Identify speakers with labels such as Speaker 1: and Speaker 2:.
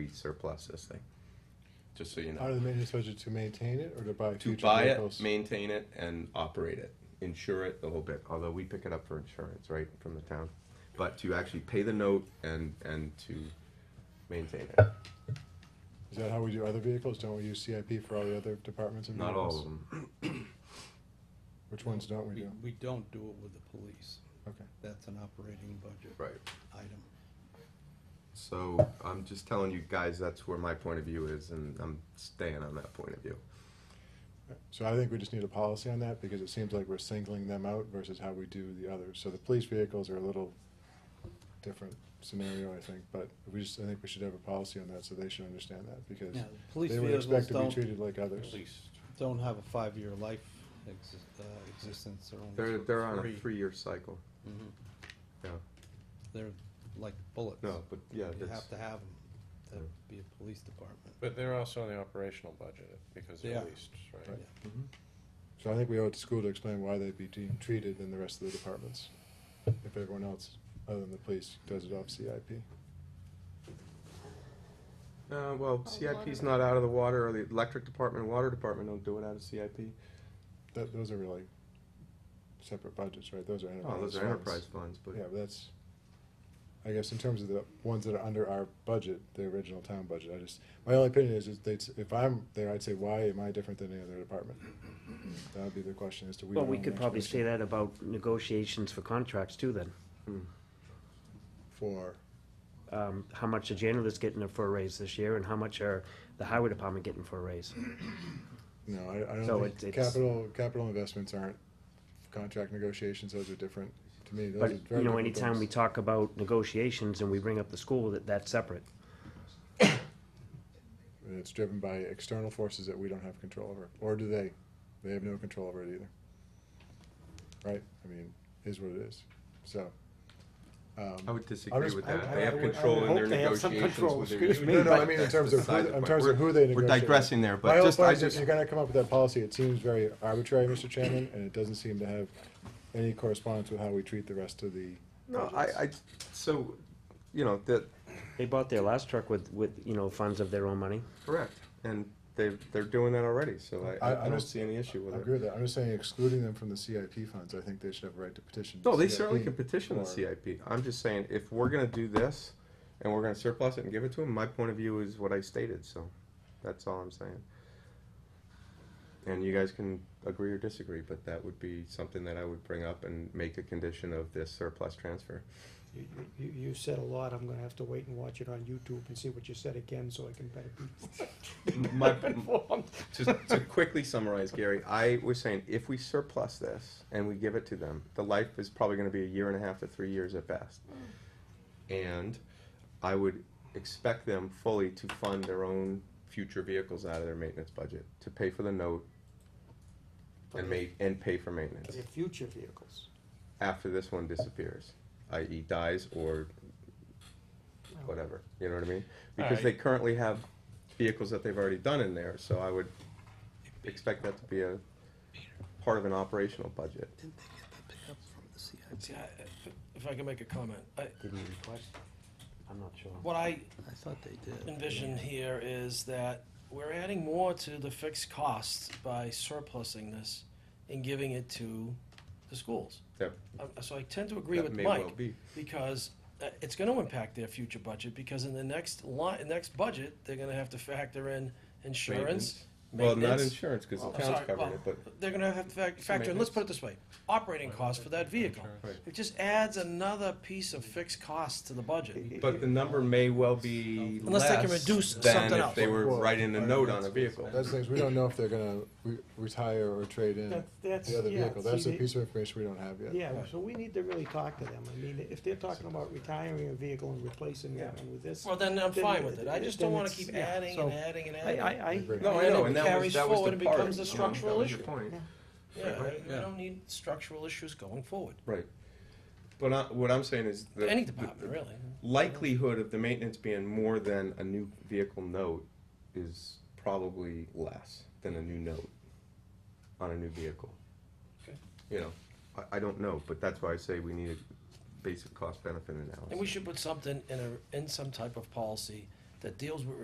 Speaker 1: we surplus this thing, just so you
Speaker 2: Part
Speaker 1: know.
Speaker 2: of the maintenance budget to maintain it or to buy
Speaker 1: To
Speaker 2: future
Speaker 1: buy
Speaker 2: vehicles?
Speaker 1: it, maintain it, and operate it, insure it a little bit, although we pick it up for insurance, right, from the town. But to actually pay the note and, and to maintain it,
Speaker 2: Is that how we do other vehicles? Don't we use CIP for all the other departments and
Speaker 1: not
Speaker 2: vehicles?
Speaker 1: all of them, Mm-hmm.
Speaker 2: Which ones don't we
Speaker 3: We,
Speaker 2: do?
Speaker 3: we don't do it with the police.
Speaker 2: Okay.
Speaker 3: That's an operating budget
Speaker 1: right.
Speaker 3: item.
Speaker 1: So I'm just telling you guys, that's where my point of view is, and I'm staying on that point of view.
Speaker 2: So I think we just need a policy on that because it seems like we're singling them out versus how we do the others. So the police vehicles are a little different scenario, I think, but we just, I think we should have a policy on that so they should understand that because
Speaker 3: Now, police
Speaker 2: they would expect
Speaker 3: vehicles
Speaker 2: to be
Speaker 3: don't,
Speaker 2: treated like others.
Speaker 3: don't have a five-year life exist, uh, existence, they're only
Speaker 1: They're,
Speaker 3: sort of
Speaker 1: they're on a
Speaker 3: three.
Speaker 1: three-year cycle,
Speaker 3: Mhm.
Speaker 1: Yeah.
Speaker 3: They're like bullets.
Speaker 1: no, but yeah,
Speaker 3: You
Speaker 1: that's,
Speaker 3: have to have them to
Speaker 1: Yeah.
Speaker 3: be a police department.
Speaker 4: But they're also in the operational budget because
Speaker 3: They
Speaker 4: they're
Speaker 3: are.
Speaker 4: leased, right?
Speaker 2: Right. So I think we owe it to school to explain why they'd be de- treated than the rest of the departments. If everyone else, other than the police, does it off CIP.
Speaker 1: uh, well, CIP's not out of the water, or the electric department, and water department don't do it out of CIP.
Speaker 2: That, those are really separate budgets, right? Those are enterprise.
Speaker 1: Oh, those are
Speaker 2: funds.
Speaker 1: enterprise funds, but,
Speaker 2: Yeah, but that's, I guess in terms of the ones that are under our budget, the original town budget, I just, my only opinion is, is they, if I'm there, I'd say, why am I different than any other department? That would be the question as to we.
Speaker 5: Well,
Speaker 2: don't
Speaker 5: we
Speaker 2: own
Speaker 5: could
Speaker 2: the
Speaker 5: probably
Speaker 2: information
Speaker 5: say that about negotiations for contracts too, then.
Speaker 2: For,
Speaker 5: Um, how much the janitor's getting for a raise this year and how much are the highway department getting for a raise?
Speaker 2: no, I, I
Speaker 5: So
Speaker 2: don't
Speaker 5: it's-
Speaker 2: think,
Speaker 5: it's-
Speaker 2: capital, capital investments aren't contract negotiations, those are different, to me, those are
Speaker 5: But,
Speaker 2: very
Speaker 5: you know,
Speaker 2: different
Speaker 5: anytime we
Speaker 2: things.
Speaker 5: talk about negotiations and we bring up the school, that, that's separate.
Speaker 2: And it's driven by external forces that we don't have control over, or do they? They have no control over it either. Right, I mean, is what it is, so. um,
Speaker 1: I would disagree
Speaker 2: just-
Speaker 1: with
Speaker 2: I-
Speaker 1: that,
Speaker 2: I-
Speaker 1: they
Speaker 2: I
Speaker 1: have
Speaker 2: would- I would
Speaker 1: control in
Speaker 2: hope
Speaker 1: their
Speaker 2: they have
Speaker 5: some
Speaker 1: negotiations
Speaker 5: control,
Speaker 1: with their.
Speaker 5: excuse me,
Speaker 1: union,
Speaker 2: No, no, I
Speaker 1: but
Speaker 2: mean, in
Speaker 1: that's
Speaker 2: terms of,
Speaker 1: beside the
Speaker 2: who- in
Speaker 1: point.
Speaker 2: terms of
Speaker 1: We're-
Speaker 2: who they
Speaker 1: We're
Speaker 2: negotiate.
Speaker 1: digressing there,
Speaker 2: My
Speaker 1: but
Speaker 2: whole
Speaker 1: just,
Speaker 2: point
Speaker 1: I
Speaker 2: is if
Speaker 1: just,
Speaker 2: you're gonna come up with that policy, it seems very arbitrary, Mr. Chairman, and it doesn't seem to have any correspondence with how we treat the rest of the.
Speaker 1: no, I,
Speaker 2: budgets.
Speaker 1: I, so, you know, that,
Speaker 5: They bought their last truck with, with, you know, funds of their own money.
Speaker 1: correct, and they, they're doing that already, so I-
Speaker 2: I-
Speaker 1: I, I
Speaker 2: I'm
Speaker 1: don't
Speaker 2: just-
Speaker 1: see any issue
Speaker 2: I
Speaker 1: with
Speaker 2: agree
Speaker 1: it.
Speaker 2: with that, I'm just saying excluding them from the CIP funds, I think they should have a right to petition.
Speaker 1: No, they
Speaker 2: CIP
Speaker 1: certainly can petition the
Speaker 2: for-
Speaker 1: CIP, I'm just saying, if we're gonna do this, and we're gonna surplus it and give it to them, my point of view is what I stated, so, that's all I'm saying. And you guys can agree or disagree, but that would be something that I would bring up and make a condition of this surplus transfer.
Speaker 6: You, you, you said a lot, I'm gonna have to wait and watch it on YouTube and see what you said again, so I can better be.
Speaker 1: My-
Speaker 6: better informed.
Speaker 1: to, to quickly summarize, Gary, I was saying if we surplus this and we give it to them, the life is probably going to be a year and a half to three years at best. And I would expect them fully to fund their own future vehicles out of their maintenance budget to pay for the note and make and pay for maintenance
Speaker 6: Your future vehicles.
Speaker 1: after this one disappears, i.e., dies or whatever. You know what I mean? Because they currently have vehicles that they've already done in there, so I would expect that to be a part of an operational budget.
Speaker 3: Didn't they get the pickup from the CIP?
Speaker 7: See, I- if- If I can make a comment, I,
Speaker 5: Didn't you request? I'm not sure.
Speaker 7: what I
Speaker 3: I thought they did.
Speaker 7: envision here is that we're adding more to the fixed costs by surplusing this and giving it to the schools.
Speaker 1: That-
Speaker 7: Um, So I tend to agree
Speaker 1: that
Speaker 7: with
Speaker 1: may well
Speaker 7: Mike,
Speaker 1: be.
Speaker 7: because uh, it's gonna impact their future budget, because in the next line, next budget, they're gonna have to factor in insurance,
Speaker 1: Well, not
Speaker 7: maintenance.
Speaker 1: insurance, because the
Speaker 7: I'm
Speaker 1: town's
Speaker 7: sorry,
Speaker 1: covering it,
Speaker 7: well,
Speaker 1: but
Speaker 7: They're gonna have to fac- factor in, let's put it this way, operating costs for that vehicle.
Speaker 1: Right.
Speaker 7: It just adds another piece of fixed costs to the budget.
Speaker 1: but the number may well be
Speaker 7: Unless they can
Speaker 1: less
Speaker 7: reduce
Speaker 1: than
Speaker 7: something
Speaker 1: if
Speaker 7: else.
Speaker 1: they were
Speaker 2: Well,
Speaker 1: writing a
Speaker 2: right,
Speaker 1: note on a vehicle.
Speaker 2: That's the things, we don't know if they're gonna re- retire or trade in
Speaker 6: That's- that's-
Speaker 2: the other
Speaker 6: yeah,
Speaker 2: vehicle, that's
Speaker 6: see,
Speaker 2: a
Speaker 6: the-
Speaker 2: piece of information we don't have yet.
Speaker 6: Yeah, so we need to really talk to them, I mean, if they're talking about retiring a vehicle and replacing that one with this.
Speaker 7: Well, then I'm
Speaker 6: Then-
Speaker 7: fine with it. I just don't
Speaker 6: then
Speaker 7: wanna
Speaker 6: it's-
Speaker 7: keep
Speaker 6: yeah,
Speaker 7: adding
Speaker 6: so
Speaker 7: and adding and
Speaker 6: I,
Speaker 7: adding.
Speaker 6: I, I.
Speaker 2: Agree.
Speaker 1: No, I
Speaker 7: And
Speaker 1: know,
Speaker 7: it
Speaker 1: and that was,
Speaker 7: carries
Speaker 1: that was
Speaker 7: forward
Speaker 1: the
Speaker 7: and
Speaker 1: part.
Speaker 7: becomes a
Speaker 1: you know,
Speaker 7: structural
Speaker 1: that was your
Speaker 7: issue.
Speaker 1: point.
Speaker 7: Yeah, I- we
Speaker 1: Yeah.
Speaker 7: don't need structural issues going forward.
Speaker 1: Right. But I- what I'm saying is. the-
Speaker 7: Any
Speaker 1: the-
Speaker 7: department, really.
Speaker 1: likelihood of the maintenance being more than a new vehicle note is probably less than a new note on a new vehicle.
Speaker 7: Okay.
Speaker 1: You know, I, I don't know, but that's why I say we need a basic cost benefit
Speaker 7: And we
Speaker 1: analysis.
Speaker 7: should put something in a, in some type of policy that deals with